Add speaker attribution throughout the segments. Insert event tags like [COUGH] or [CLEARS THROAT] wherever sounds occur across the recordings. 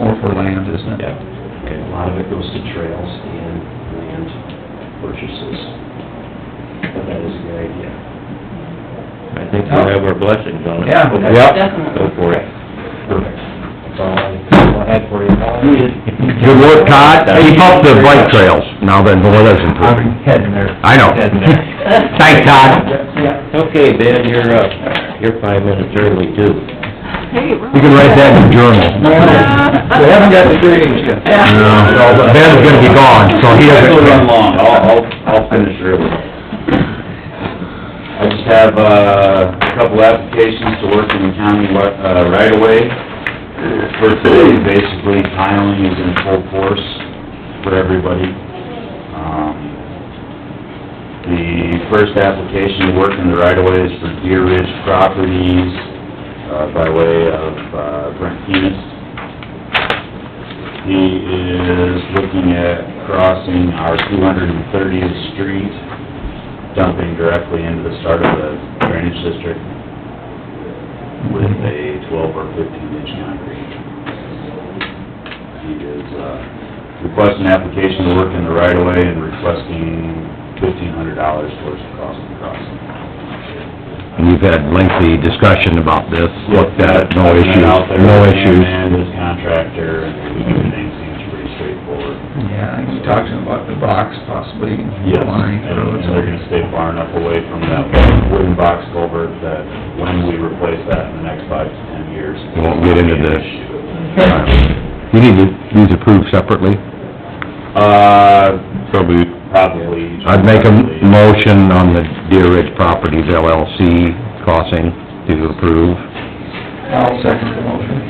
Speaker 1: more for land, isn't it?
Speaker 2: Yeah.
Speaker 3: Okay, a lot of it goes to trails and land purchases. But that is a good idea.
Speaker 2: I think we have our blessings on it.
Speaker 1: Yeah.
Speaker 2: Go
Speaker 4: Definitely.
Speaker 2: for it.
Speaker 3: Perfect. That's all I all I had for you.
Speaker 5: Good work, Todd. Keep up the bike trails now that the weather's
Speaker 1: I'm
Speaker 5: improving.
Speaker 1: heading there.
Speaker 5: I know.
Speaker 1: Heading there.
Speaker 5: [LAUGHS] Thanks, Todd.
Speaker 1: Yeah.
Speaker 2: Okay, Ben, you're up. You're five minutes early too.
Speaker 4: Hey, we're...
Speaker 5: You can write that in the journal.
Speaker 1: No, [LAUGHS] We haven't got the drainage yet.
Speaker 4: Yeah.
Speaker 5: No, but Ben's gonna be gone, so he doesn't...
Speaker 3: Don't run long, I'll, I'll, I'll finish early. I just have, uh, a couple applications to work in the county, wa- uh, right away. First thing, basically tiling is in full force for everybody. Um, The first application to work in the right of way is for Deer Ridge Properties, uh, by way of, uh, Brent Keenest. He is looking at crossing our two hundred and thirtieth street, dumping directly into the start of the drainage district with a twelve or fifteen inch concrete. He is, uh, requesting application to work in the right of way and requesting fifteen hundred dollars towards the cost of the crossing.
Speaker 5: And you've had lengthy discussion about this, looked at it, no
Speaker 3: I've been
Speaker 5: issues,
Speaker 3: out there
Speaker 5: no
Speaker 3: with him
Speaker 5: issues.
Speaker 3: And his contractor, and everything seems pretty straightforward.
Speaker 1: Yeah, you talked about the box possibly
Speaker 3: Yes,
Speaker 1: lining
Speaker 3: and
Speaker 1: roads.
Speaker 3: and they're gonna stay far enough away from that wooden box culvert that when we replace that in the next five to ten years.
Speaker 5: You won't get into the-
Speaker 3: the.
Speaker 5: You need to, these approved separately?
Speaker 3: Uh,
Speaker 5: Probably.
Speaker 3: probably.
Speaker 5: I'd make a motion on the Deer Ridge Properties LLC crossing to approve.
Speaker 1: I'll second the motion.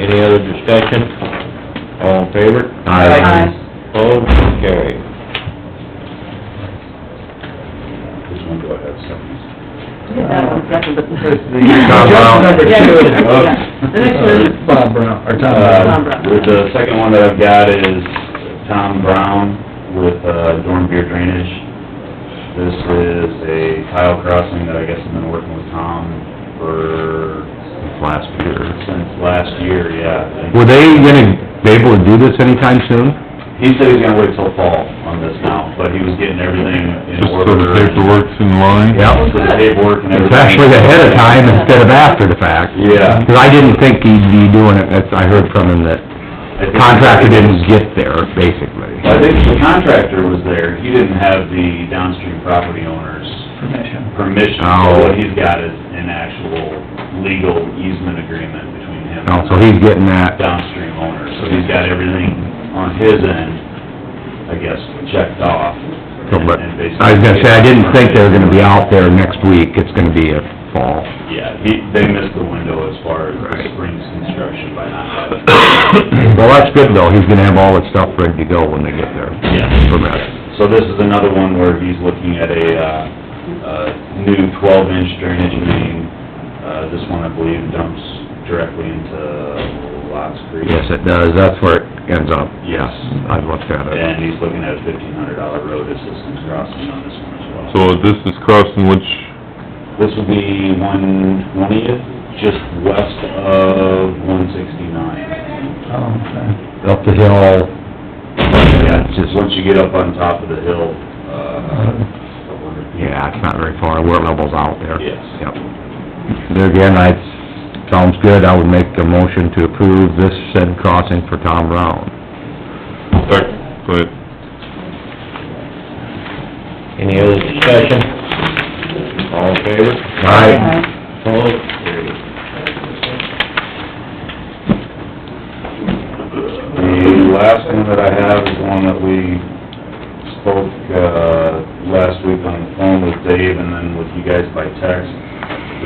Speaker 2: Any other discussion? All in favor?
Speaker 4: Aye.
Speaker 2: Opposed? Carried.
Speaker 3: This one, go ahead, Stephanie.
Speaker 4: That one's second, but the first.
Speaker 5: Tom Brown.
Speaker 1: Just number
Speaker 4: Yeah,
Speaker 1: two is-
Speaker 3: [LAUGHS]
Speaker 4: yeah. The next one is
Speaker 1: Bob Brown, or Tom Brown.
Speaker 4: Tom Brown.
Speaker 3: Uh, The second one that I've got is Tom Brown with uh, Dorn Beer Drainage. This is a tile crossing that I guess I've been working with Tom for... Last year. Since last year, yeah.
Speaker 5: Were they gonna be able to do this anytime soon?
Speaker 3: He said he's gonna wait till fall on this now, but he was getting everything in
Speaker 6: Just so
Speaker 3: order.
Speaker 6: the paperwork's in line?
Speaker 5: Yeah.
Speaker 3: So the paperwork and everything.
Speaker 5: It's actually ahead of time instead of after the fact.
Speaker 3: Yeah.
Speaker 5: Because I didn't think he'd be doing it, that's, I heard from him that
Speaker 3: I think-
Speaker 5: contractor didn't get there, basically.
Speaker 3: I think the contractor was there, he didn't have the downstream property owners
Speaker 1: Permission.
Speaker 3: permission,
Speaker 5: Oh.
Speaker 3: so what he's got is an actual legal easement agreement between him
Speaker 5: No,
Speaker 3: and
Speaker 5: Oh, so he's getting
Speaker 3: the
Speaker 5: that,
Speaker 3: downstream owner, so he's got everything on his end, I guess, checked off.
Speaker 5: so, but,
Speaker 3: and basically-
Speaker 5: I was gonna say, I didn't think they were gonna be out there next week, it's gonna be a fall. [CLEARS THROAT]
Speaker 3: Yeah, he, they missed the window as far as the spring's construction by not having.
Speaker 5: [COUGHS] Well, that's good though, he's gonna have all his stuff ready to go when they get there.
Speaker 3: Yeah.
Speaker 5: Permit.
Speaker 3: So this is another one where he's looking at a, uh, a new twelve inch drainage main. Uh, this one, I believe, dumps directly into Lots Creek.
Speaker 5: Yes, it does, that's where it ends up.
Speaker 3: Yes.
Speaker 5: I've looked at it.
Speaker 3: And he's looking at a fifteen hundred dollar road assistance crossing on this one as well.
Speaker 6: So this is crossing which,
Speaker 3: This would be one twentieth, just west of one sixty-nine.
Speaker 1: Oh, okay.
Speaker 5: Up the hill,
Speaker 3: Yeah, it's just once you get up on top of the hill, uh, up under-
Speaker 5: yeah, it's not very far, we're levels out there.
Speaker 3: Yes.
Speaker 5: Yep. There again, I, sounds good, I would make a motion to approve this said crossing for Tom Brown.
Speaker 6: sec, but
Speaker 2: Any other discussion? All in favor?
Speaker 5: Aye.
Speaker 2: Opposed? Carried.
Speaker 3: The last one that I have is one that we spoke, uh, last week on the phone with Dave and then with you guys by text.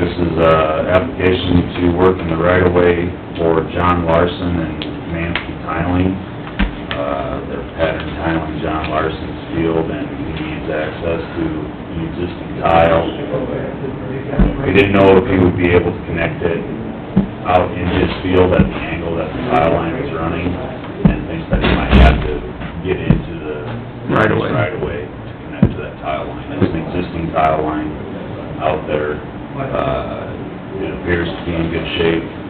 Speaker 3: This is, uh, application to work in the right-of-way for John Larson and Mansky Tiling. Uh, they're pattern tiling John Larson's field and he needs access to the existing tile. We didn't know if he would be able to connect it out in his field at the angle that the tile line is running, and thinks that he might have to get into the...
Speaker 1: Right away.
Speaker 3: Right away to connect to that tile line. There's an existing tile line out there. Uh, it appears to be in good shape.